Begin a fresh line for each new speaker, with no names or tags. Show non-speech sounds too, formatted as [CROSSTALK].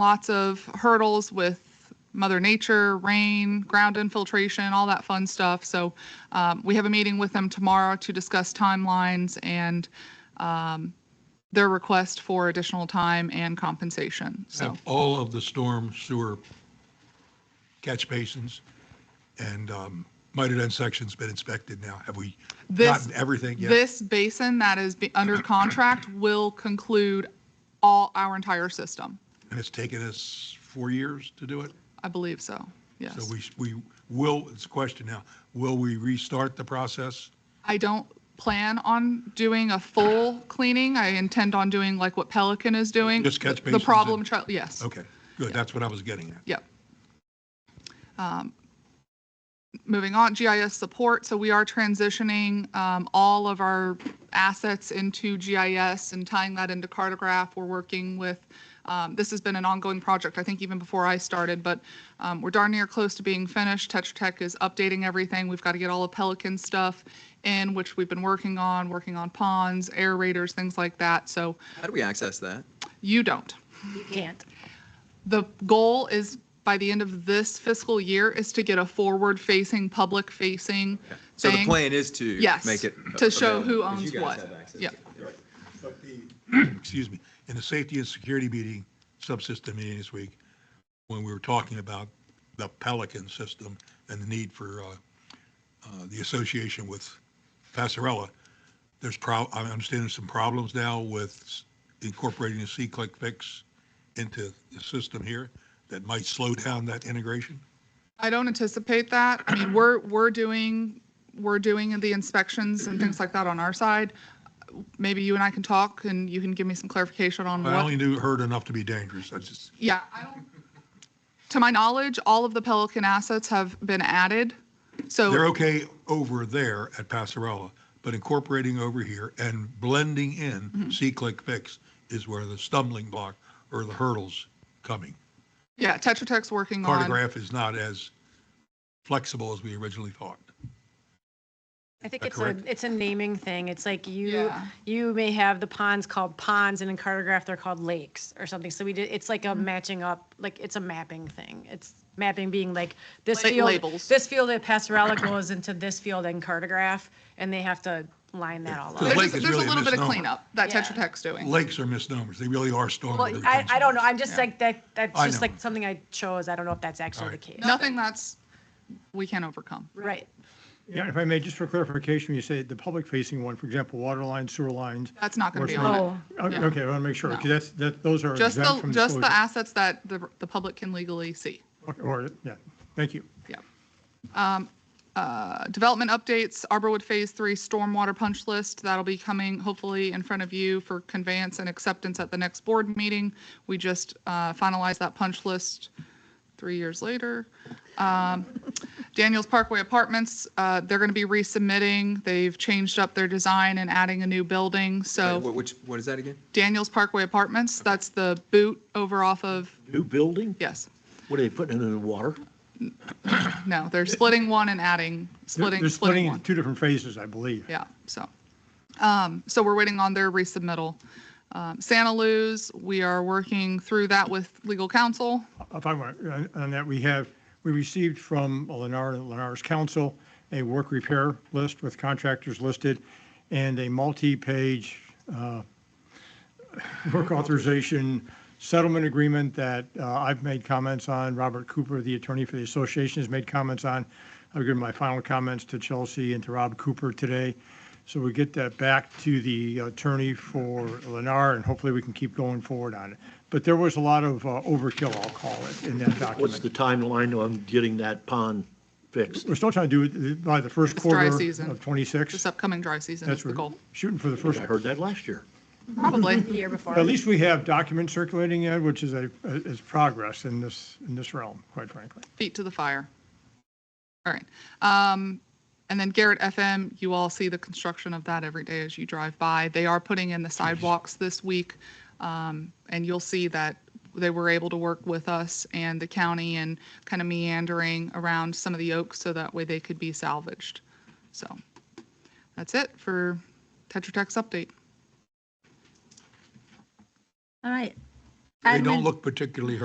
lots of hurdles with Mother Nature, rain, ground infiltration, all that fun stuff. So um, we have a meeting with them tomorrow to discuss timelines and um, their request for additional time and compensation. So,
have all of the storm sewer catch basins and um, mitered end sections been inspected now? Have we
This-
gotten everything yet?
this basin that is be- under contract will conclude all our entire system.
And it's taken us four years to do it?
I believe so. Yes.
So we, sh- we will, it's a question now, will we restart the process?
I don't plan on doing a full cleaning. I intend on doing like what Pelican is doing.
Just catch
The
basins
problem,
and-
child. yes.
Okay, good, that's what I was getting at.
Yep. Um, Moving on, GIS support. So we are transitioning um, all of our assets into GIS and tying that into Cartograph. We're working with, um, this has been an ongoing project, I think even before I started, but um, we're darn near close to being finished. Tetra Tech is updating everything. We've got to get all the Pelican stuff in, which we've been working on, working on ponds, aerators, things like that. So
How do we access that?
you don't.
You can't.
The goal is by the end of this fiscal year is to get a forward-facing, public-facing
So the
thing.
plan is to
Yes,
make it
to show who
available, 'cause you
owns
guys
what.
have access
Yeah.
to it.
But the- [CLEARS THROAT] Excuse me, in the safety and security meeting, subsystem meeting this week, when we were talking about the Pelican system and the need for uh, uh, the association with Passarella, there's prob, I understand there's some problems now with incorporating the C-click fix into the system here that might slow down that integration.
I don't anticipate that. I mean, we're, we're doing, we're doing the inspections and things like that on our side. Maybe you and I can talk and you can give me some clarification on
I
what.
only knew, heard enough to be dangerous. I just,
Yeah, I don't, to my knowledge, all of the Pelican assets have been added.
they're
So
okay over there at Passarella, but incorporating over here and blending
Mm-hmm.
in C-click fix is where the stumbling block or the hurdles coming.
yeah, Tetra Tech's working on.
Cartograph is not as flexible as we originally thought.
I think
that
it's a,
Uh, correct?
it's a naming thing. It's like you,
Yeah.
you may have the ponds called ponds and in cartograph, they're called lakes or something. So we did, it's like a matching up, like it's a mapping thing. It's mapping being like this
Like
field,
labels.
this field at Passarella goes into this field in cartograph and they have to line that all
The
up.
There's,
lake
just-
is
there's a
really a
little bit of
misnomer.
cleanup that
Yeah.
Tetra Tech's doing.
Lakes are misnomers. They really are storm.
Well, I, I don't know. I'm just like, that, that's
I
just
know.
like something I chose. I don't know if that's actually the
Alright.
case.
Nothing that's, we can't overcome.
Right.
Yeah, if I may, just for clarification, you say the public facing one, for example, water lines, sewer lines.
That's not going to be
Works
on it.
Oh,
O-
Yeah.
Okay, I want to make sure,
No.
because that's, that, those are
Just
exempt
the,
from
just
disclosure.
the assets that the, the public can legally see.
Okay, Or, yeah, thank you.
Yeah. Um, uh, Development updates, Arborwood Phase Three Stormwater Punch List, that'll be coming hopefully in front of you for conveyance and acceptance at the next board meeting. We just uh, finalized that punch list three years later. Um, Daniels Parkway Apartments, uh, they're going to be resubmitting. They've changed up their design and adding a new building,
Wait,
so
what- Which, what is that again?
Daniels Parkway Apartments, that's the boot over off of,
New building?
yes.
What are they putting it in the water?
No, they're splitting one and adding,
They're-
splitting,
They're splitting
splitting
into
one.
two different phases, I believe.
Yeah, so, um, so we're waiting on their resubmittal. Um, Santa Luz, we are working through that with legal counsel.
If I want, on- on that, we have, we received from Lennar and Lennar's council a work repair list with contractors listed and a multi-page uh, work authorization settlement agreement that uh, I've made comments on. Robert Cooper, the attorney for the association, has made comments on. I've given my final comments to Chelsea and to Rob Cooper today. So we get that back to the attorney for Lennar, and hopefully we can keep going forward on it. But there was a lot of uh, overkill, I'll call it, in that
What's the
document.
timeline on getting that pond fixed?
We're still trying to do it by the first
It's dry
quarter
season.
of
This
'26.
upcoming dry season is
That's
the
what
goal,
shooting for the
I
first
heard that last year.
[LAUGHS]
probably.
The year before.
At least we have documents circulating, Ed, which is a, is progress in this, in this realm, quite frankly.
feet to the fire. All right. Um, and then Garrett FM, you all see the construction of that every day as you drive by. They are putting in the sidewalks this week. Um, and you'll see that they were able to work with us and the county and kind of meandering around some of the oaks so that way they could be salvaged. So that's it for Tetra Tech's update.
All right.
They don't
Admin-
look particularly